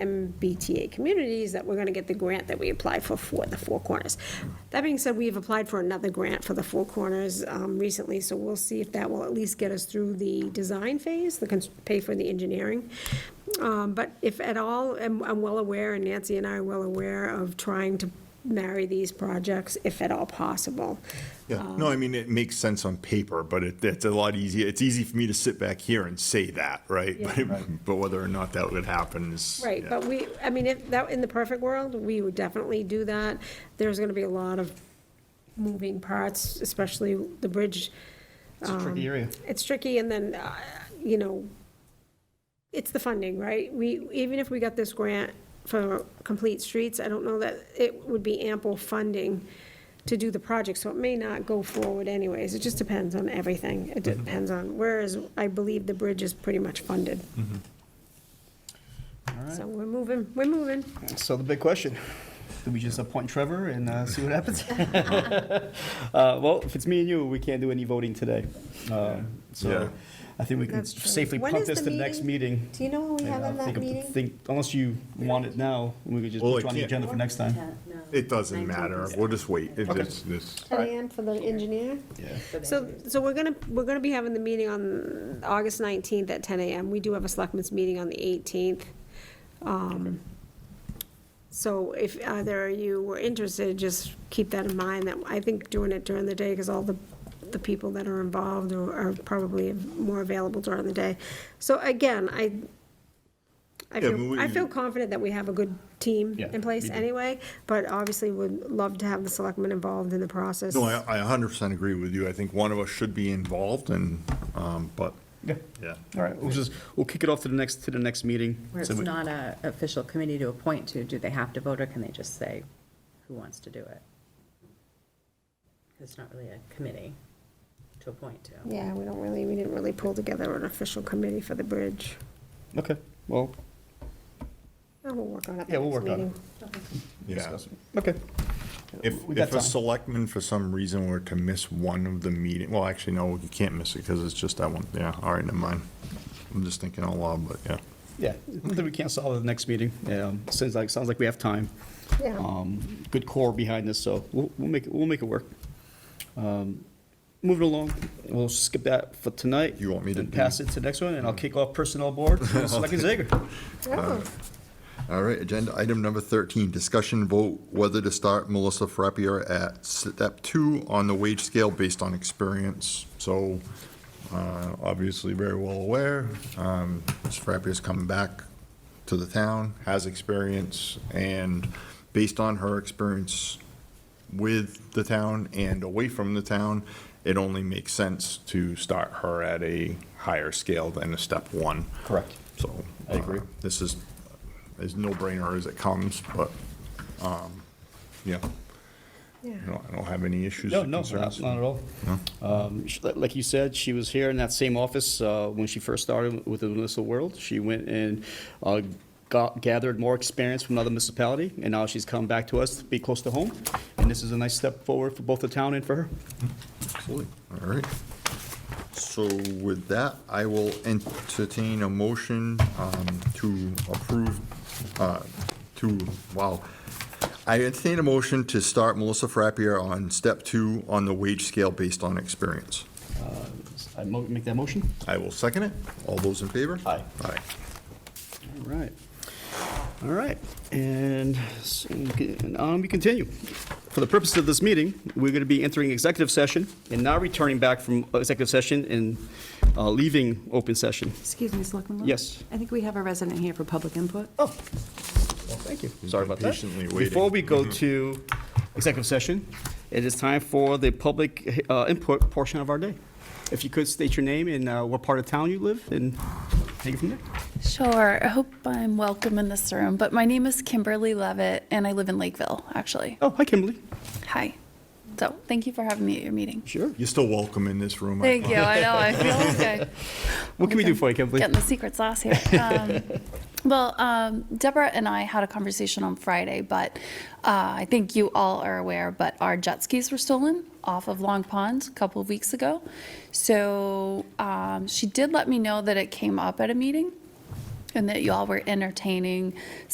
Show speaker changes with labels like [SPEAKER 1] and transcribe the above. [SPEAKER 1] MBTA communities that we're going to get the grant that we applied for for the Four Corners. That being said, we've applied for another grant for the Four Corners um, recently, so we'll see if that will at least get us through the design phase, the, cons- pay for the engineering. Um, But if at all, I'm I'm well aware, and Nancy and I are well aware of trying to marry these projects, if at all possible. Um,
[SPEAKER 2] Yeah, no, I mean, it makes sense on paper, but it, it's a lot easier, it's easy for me to sit back here and say that, right?
[SPEAKER 1] Yeah.
[SPEAKER 2] But- But whether or not that would happen is.
[SPEAKER 1] Right,
[SPEAKER 2] yeah.
[SPEAKER 1] but we, I mean, if, that, in the perfect world, we would definitely do that. There's gonna be a lot of moving parts, especially the bridge. um,
[SPEAKER 3] It's a tricky area.
[SPEAKER 1] It's tricky, and then, uh, you know, it's the funding, right? We, even if we got this grant for Complete Streets, I don't know that it would be ample funding to do the project, so it may not go forward anyways. It just depends on everything. It
[SPEAKER 3] Mm-hmm.
[SPEAKER 1] depends on, whereas I believe the bridge is pretty much funded. So we're moving, we're moving.
[SPEAKER 3] So the big question, do we just appoint Trevor and uh, see what happens? Uh, Well, if it's me and you, we can't do any voting today. Um,
[SPEAKER 2] Yeah.
[SPEAKER 3] So I think we can
[SPEAKER 1] That's true.
[SPEAKER 3] safely
[SPEAKER 1] When
[SPEAKER 3] punt
[SPEAKER 1] is
[SPEAKER 3] this
[SPEAKER 1] the
[SPEAKER 3] to the next meeting.
[SPEAKER 1] Do you know when we have
[SPEAKER 3] Yeah,
[SPEAKER 1] on
[SPEAKER 3] think
[SPEAKER 1] that
[SPEAKER 3] of-
[SPEAKER 1] meeting?
[SPEAKER 3] think- Unless you want it now, we could just
[SPEAKER 2] Well,
[SPEAKER 3] put
[SPEAKER 2] I
[SPEAKER 3] you on the
[SPEAKER 2] can't.
[SPEAKER 3] agenda for next time.
[SPEAKER 2] It doesn't matter, we'll just wait, It-
[SPEAKER 3] Okay.
[SPEAKER 2] it's, this,
[SPEAKER 1] Ten AM for the engineer?
[SPEAKER 3] Yeah.
[SPEAKER 1] So, so we're gonna, we're gonna be having the meeting on August nineteenth at ten AM. We do have a selectmen's meeting on the eighteenth. Um, So if either of you were interested, just keep that in mind, that I think doing it during the day, because all the, the people that are involved are are probably more available during the day. So again, I, I
[SPEAKER 2] Yeah, but
[SPEAKER 1] feel,
[SPEAKER 2] we-
[SPEAKER 1] I feel confident that we have a good team
[SPEAKER 3] Yeah,
[SPEAKER 1] in place
[SPEAKER 3] we do.
[SPEAKER 1] anyway, but obviously would love to have the selectmen involved in the process.
[SPEAKER 2] no, I, I a hundred percent agree with you, I think one of us should be involved and, um, but,
[SPEAKER 3] Yeah.
[SPEAKER 2] yeah.
[SPEAKER 3] All right, we'll just, we'll kick it off to the next, to the next meeting.
[SPEAKER 4] Where it's
[SPEAKER 3] So we-
[SPEAKER 4] not a official committee to appoint to, do they have to vote, or can they just say who wants to do it? 'Cause It's not really a committee to appoint to.
[SPEAKER 1] Yeah, we don't really, we didn't really pull together an official committee for the bridge.
[SPEAKER 3] Okay, well,
[SPEAKER 1] Oh, We'll work on it.
[SPEAKER 3] Yeah, we'll work on it.
[SPEAKER 2] Yeah,
[SPEAKER 3] okay.
[SPEAKER 2] if,
[SPEAKER 3] We got
[SPEAKER 2] if a
[SPEAKER 3] time.
[SPEAKER 2] selectman for some reason were to miss one of the meeting, well, actually, no, you can't miss it, because it's just that one, yeah, all right, never mind. I'm just thinking out loud, but, yeah.
[SPEAKER 3] Yeah, then we can't solve it at the next meeting. Um, Sounds like, sounds like we have time.
[SPEAKER 1] Yeah.
[SPEAKER 3] Um, Good core behind this, so we'll, we'll make, it- we'll make it work. Um, Moving along, we'll skip that for tonight.
[SPEAKER 2] You want me to
[SPEAKER 3] and
[SPEAKER 2] do- Mm-hmm.
[SPEAKER 3] Pass it to the next one, and I'll kick off personnel board, Selectman Zager.
[SPEAKER 1] Oh,
[SPEAKER 2] All right, agenda item number 13, discussion vote whether to start Melissa Frappier at step two on the wage scale based on experience. So, uh, obviously very well aware, um, Ms. Frappier's coming back to the town, has experience, and based on her experience with the town and away from the town, it only makes sense to start her at a higher scale than a step one.
[SPEAKER 3] Correct.
[SPEAKER 2] So.
[SPEAKER 3] I agree.
[SPEAKER 2] uh, This is as no-brainer as it comes, but, um, yeah,
[SPEAKER 1] yeah.
[SPEAKER 2] I don't, I don't have any issues
[SPEAKER 3] No,
[SPEAKER 2] or
[SPEAKER 3] no, not
[SPEAKER 2] concerns.
[SPEAKER 3] not at all. Um, sh- li- Like you said, she was here in that same office uh, when she first started with the municipal world. She went and uh, got, gathered more experience from another municipality, and now she's come back to us to be close to home. And this is a nice step forward for both the town and for her.
[SPEAKER 2] Absolutely. All right. So with that, I will entertain a motion um, to approve, uh, to, wow. I entertain a motion to start Melissa Frappier on step two on the wage scale based on experience.
[SPEAKER 3] I mo- make that motion?
[SPEAKER 2] I will second it. All those in favor?
[SPEAKER 3] Aye.
[SPEAKER 2] Aye.
[SPEAKER 3] All right. All right, and so, and on we continue. For the purpose of this meeting, we're going to be entering executive session and now returning back from executive session and uh, leaving open session.
[SPEAKER 5] Excuse me, Selectman Lopes?
[SPEAKER 3] Yes.
[SPEAKER 5] I think we have a resident here for public input.
[SPEAKER 3] Oh, well, thank you. Sorry about that.
[SPEAKER 2] patiently waiting.
[SPEAKER 3] Before we go to executive session, it is time for the public uh, input portion of our day. If you could state your name and uh, what part of town you live, and take it from there.
[SPEAKER 6] Sure. I hope I'm welcome in this room, but my name is Kimberly Levitt and I live in Lakeville, actually.
[SPEAKER 3] Oh, hi, Kimberly.
[SPEAKER 6] Hi. So thank you for having me at your meeting.
[SPEAKER 3] Sure.
[SPEAKER 2] You're still welcome in this room. I
[SPEAKER 6] Thank you. I know. I feel good.
[SPEAKER 3] What can we do for you, Kimberly?
[SPEAKER 6] Getting the secret sauce here. Um, well, um, Deborah and I had a conversation on Friday, but uh, I think you all are aware, but our jet skis were stolen off of Long Pond a couple of weeks ago. So um, she did let me know that it came up at a meeting and that you all were entertaining